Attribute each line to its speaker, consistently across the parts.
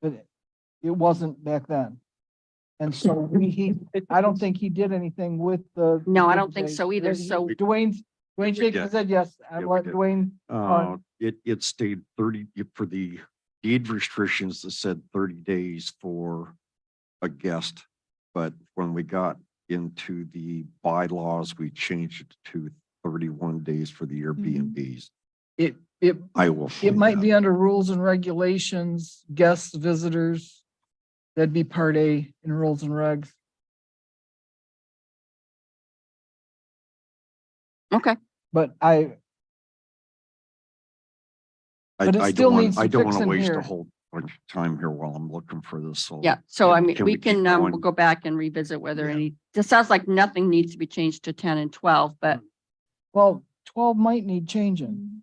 Speaker 1: But it- it wasn't back then. And so we, he, I don't think he did anything with the.
Speaker 2: No, I don't think so either, so-
Speaker 1: Dwayne, Dwayne Jacob
Speaker 3: did.
Speaker 1: said yes, I
Speaker 3: Yeah, we
Speaker 1: let
Speaker 3: did.
Speaker 1: Dwayne,
Speaker 3: Uh, it, it stayed thirty, for the deed restrictions that said thirty days for a guest. But when we got into the bylaws, we changed it to thirty-one days for the Airbnbs.
Speaker 1: it, it,
Speaker 3: I will.
Speaker 1: Mm-hmm. it
Speaker 3: find
Speaker 1: might
Speaker 3: out.
Speaker 1: be under rules and regulations, guests, visitors. That'd be part A in rules and regs.
Speaker 2: Okay,
Speaker 1: But I,
Speaker 3: I,
Speaker 1: but it
Speaker 3: I
Speaker 1: still
Speaker 3: don't want,
Speaker 1: needs
Speaker 3: I
Speaker 1: some
Speaker 3: don't want to
Speaker 1: fixing
Speaker 3: waste
Speaker 1: here.
Speaker 3: a whole bunch of time here while I'm looking for this, so.
Speaker 2: yeah, so I mean,
Speaker 3: Can we
Speaker 2: we
Speaker 3: keep
Speaker 2: can, um, we'll
Speaker 3: going?
Speaker 2: go back and revisit whether
Speaker 3: Yeah.
Speaker 2: any, this sounds like nothing needs to be changed to ten and twelve, but
Speaker 1: Mm, well, twelve might need changing.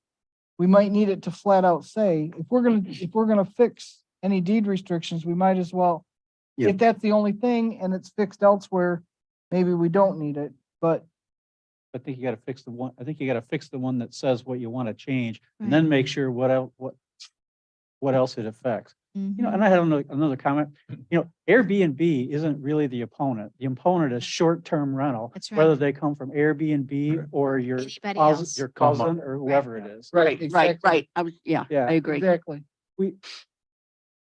Speaker 1: we might need it to flat out say, if we're gonna, if we're gonna fix any deed restrictions, we might as well.
Speaker 3: Yeah.
Speaker 1: If that's the only thing and it's fixed elsewhere, maybe we don't need it, but
Speaker 4: I think you gotta fix the one, I think you gotta fix the one that says what you want to change and then make sure what el, what, what else it affects. You
Speaker 5: Mm-hmm.
Speaker 4: know, and I had another, another comment, you know, Airbnb isn't really the opponent. The opponent is short-term rental.
Speaker 5: That's right.
Speaker 4: Whether they come from Airbnb or your,
Speaker 5: Anybody
Speaker 4: cous-
Speaker 5: else?
Speaker 4: your cousin or whoever it is.
Speaker 1: Right.
Speaker 2: Right,
Speaker 1: Exactly.
Speaker 2: right, I was, yeah,
Speaker 4: Yeah.
Speaker 2: I agree.
Speaker 1: exactly.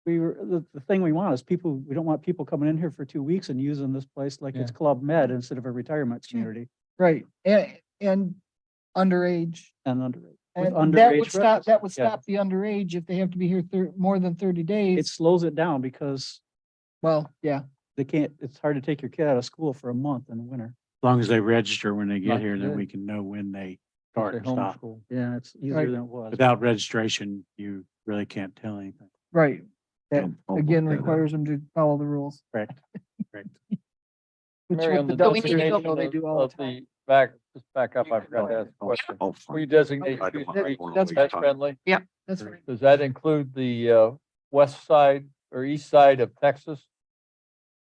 Speaker 4: We were, the, the thing we want is people, we don't want people coming in here for two weeks and using this place like it's Club Med instead of a retirement
Speaker 5: Sure.
Speaker 4: community
Speaker 1: Right. And, and underage.
Speaker 4: and underage. with
Speaker 1: And that
Speaker 4: underage
Speaker 1: would stop, that would
Speaker 4: residents, yeah.
Speaker 1: stop the underage if they have to be here thir- more than thirty
Speaker 4: It
Speaker 1: days.
Speaker 4: slows it down because
Speaker 1: Well, yeah.
Speaker 4: they can't, it's hard to take your kid out of school for a month in the winter.
Speaker 6: As long as they register when they
Speaker 4: Right,
Speaker 6: get here,
Speaker 4: yeah.
Speaker 6: then we can know when they
Speaker 4: if
Speaker 6: start
Speaker 4: they're
Speaker 6: and stop.
Speaker 4: homeschooled. Yeah, it's
Speaker 1: Right.
Speaker 4: easier than it was.
Speaker 6: Without registration, you really can't tell anything.
Speaker 1: Right. That
Speaker 3: I'll- I'll look
Speaker 1: again
Speaker 3: that up.
Speaker 1: requires them to follow the rules.
Speaker 4: Correct,
Speaker 6: correct.
Speaker 1: Which
Speaker 7: Mary,
Speaker 1: with
Speaker 7: on
Speaker 1: the
Speaker 7: the
Speaker 2: But we need to
Speaker 1: dumpster,
Speaker 2: go-
Speaker 1: you know, they
Speaker 7: designation
Speaker 1: do
Speaker 7: of
Speaker 1: all the
Speaker 7: of
Speaker 1: time.
Speaker 7: the, back, just back up, I forgot to ask a question.
Speaker 3: I'll
Speaker 7: Can We
Speaker 3: find-
Speaker 7: designate
Speaker 3: Oh, I don't
Speaker 7: Q
Speaker 3: want- I
Speaker 7: Street
Speaker 3: don't wanna
Speaker 1: that's-
Speaker 3: waste
Speaker 7: pet
Speaker 3: time.
Speaker 7: friendly?
Speaker 1: That's right.
Speaker 7: Does that include the, uh, west side or east side of Texas?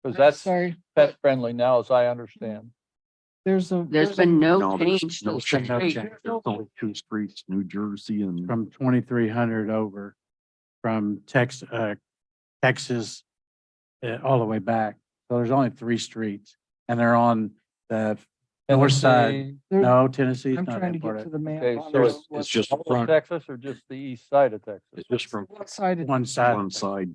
Speaker 7: Cause that's
Speaker 1: Sorry,
Speaker 7: pet friendly now, as I understand.
Speaker 1: there's a.
Speaker 2: There's
Speaker 1: a-
Speaker 2: been no
Speaker 3: No, there's
Speaker 2: change.
Speaker 3: no
Speaker 2: to the
Speaker 3: change.
Speaker 6: No
Speaker 2: street.
Speaker 6: change.
Speaker 3: There's only two streets, New Jersey and.
Speaker 6: From twenty-three hundred over from Tex, uh, Texas, uh, all the way back. So there's only three streets and they're on the, North side.
Speaker 7: Tennessee,
Speaker 1: there-
Speaker 6: no, Tennessee's
Speaker 1: I'm
Speaker 6: not
Speaker 1: trying to get
Speaker 6: that part
Speaker 1: to
Speaker 6: of
Speaker 1: the map.
Speaker 7: Okay,
Speaker 1: on
Speaker 7: so
Speaker 1: this
Speaker 7: it's-
Speaker 1: one
Speaker 6: it's just
Speaker 7: all of
Speaker 6: front.
Speaker 7: Texas or just the east side of Texas?
Speaker 6: It's just from
Speaker 1: side of-
Speaker 6: one side.
Speaker 3: One side.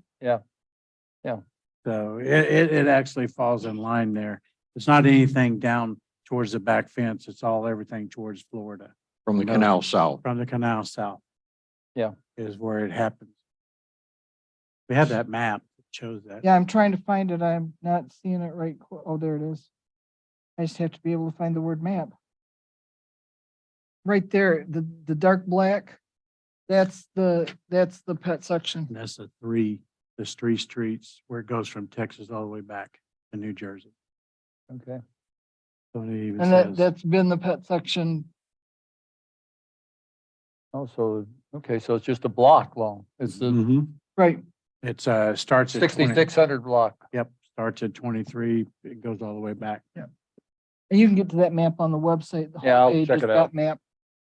Speaker 6: So it, it, it actually falls in line there. It's not anything down towards the back fence. It's all everything towards Florida.
Speaker 3: From
Speaker 6: the canal
Speaker 3: south.
Speaker 6: from the canal south.
Speaker 7: Yeah.
Speaker 6: Is where it happens. We have that map that shows that.
Speaker 1: Yeah, I'm trying to find it. I'm not seeing it right. qu- Oh, there it is. I just have to be able to find the word map. Right there, the, the dark black, that's the, that's the pet section.
Speaker 6: And that's the three, there's three streets where it goes from Texas all the way back to New Jersey.
Speaker 7: Okay,
Speaker 6: So it even
Speaker 1: And that,
Speaker 6: says-
Speaker 1: that's been the pet section.
Speaker 7: oh, so, okay, so it's just a block long. It's
Speaker 6: Mm,
Speaker 7: the
Speaker 1: Right,
Speaker 6: It's, uh, starts at. 20
Speaker 7: sixty-six hundred block.
Speaker 6: Yep, starts at twenty-three, it goes all the way back.
Speaker 1: and you can get to that map on the website. the
Speaker 7: Yeah, I'll
Speaker 1: homepage
Speaker 7: check
Speaker 1: has
Speaker 7: it
Speaker 1: got
Speaker 7: out.
Speaker 1: Map.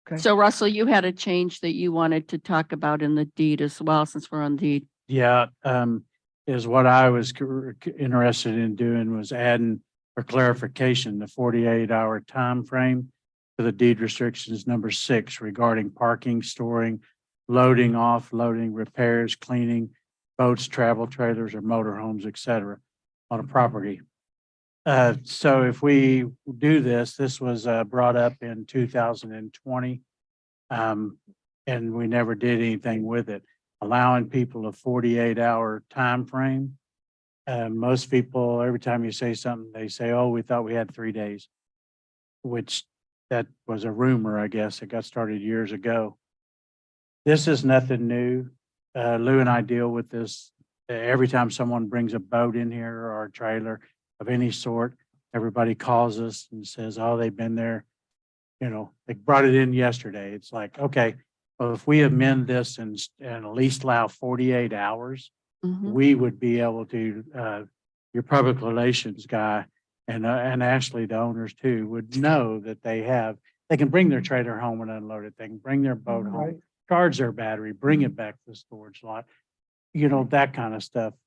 Speaker 1: Okay.
Speaker 2: So Russell, you had a change that you wanted to talk about in the deed as well, since we're on deed.
Speaker 6: Yeah, um, is what I was cur- c- interested in doing was adding for clarification, the forty-eight hour time frame to the deed restrictions number six regarding parking, storing, loading, offloading, repairs, cleaning, boats, travel trailers, or motorhomes, et cetera, on a property. Uh, so if we do this, this was, uh, brought up in two thousand and twenty. Um, and we never did anything with it allowing people a forty-eight hour time frame. Uh, most people, every time you say something, they say, oh, we thought we had three days. Which that was a rumor, I guess. It got started years ago. This is nothing new. Uh, Lou and I deal with this uh, every time someone brings a boat in here or a trailer of any sort. Everybody calls us and says, oh, they've been there. You know, they brought it in yesterday. It's like, okay, well, if we amend this and, s- and at least allow forty-eight hours,
Speaker 1: Mm-hmm.
Speaker 2: Mhm.
Speaker 6: we would be able to, uh, your public relations guy and, uh, and actually the owners too would know that they have, they can bring their trailer home and unload it. They can bring their boat
Speaker 1: Right.
Speaker 6: home, charge their battery, bring it back to the storage lot. you know, that kind of stuff.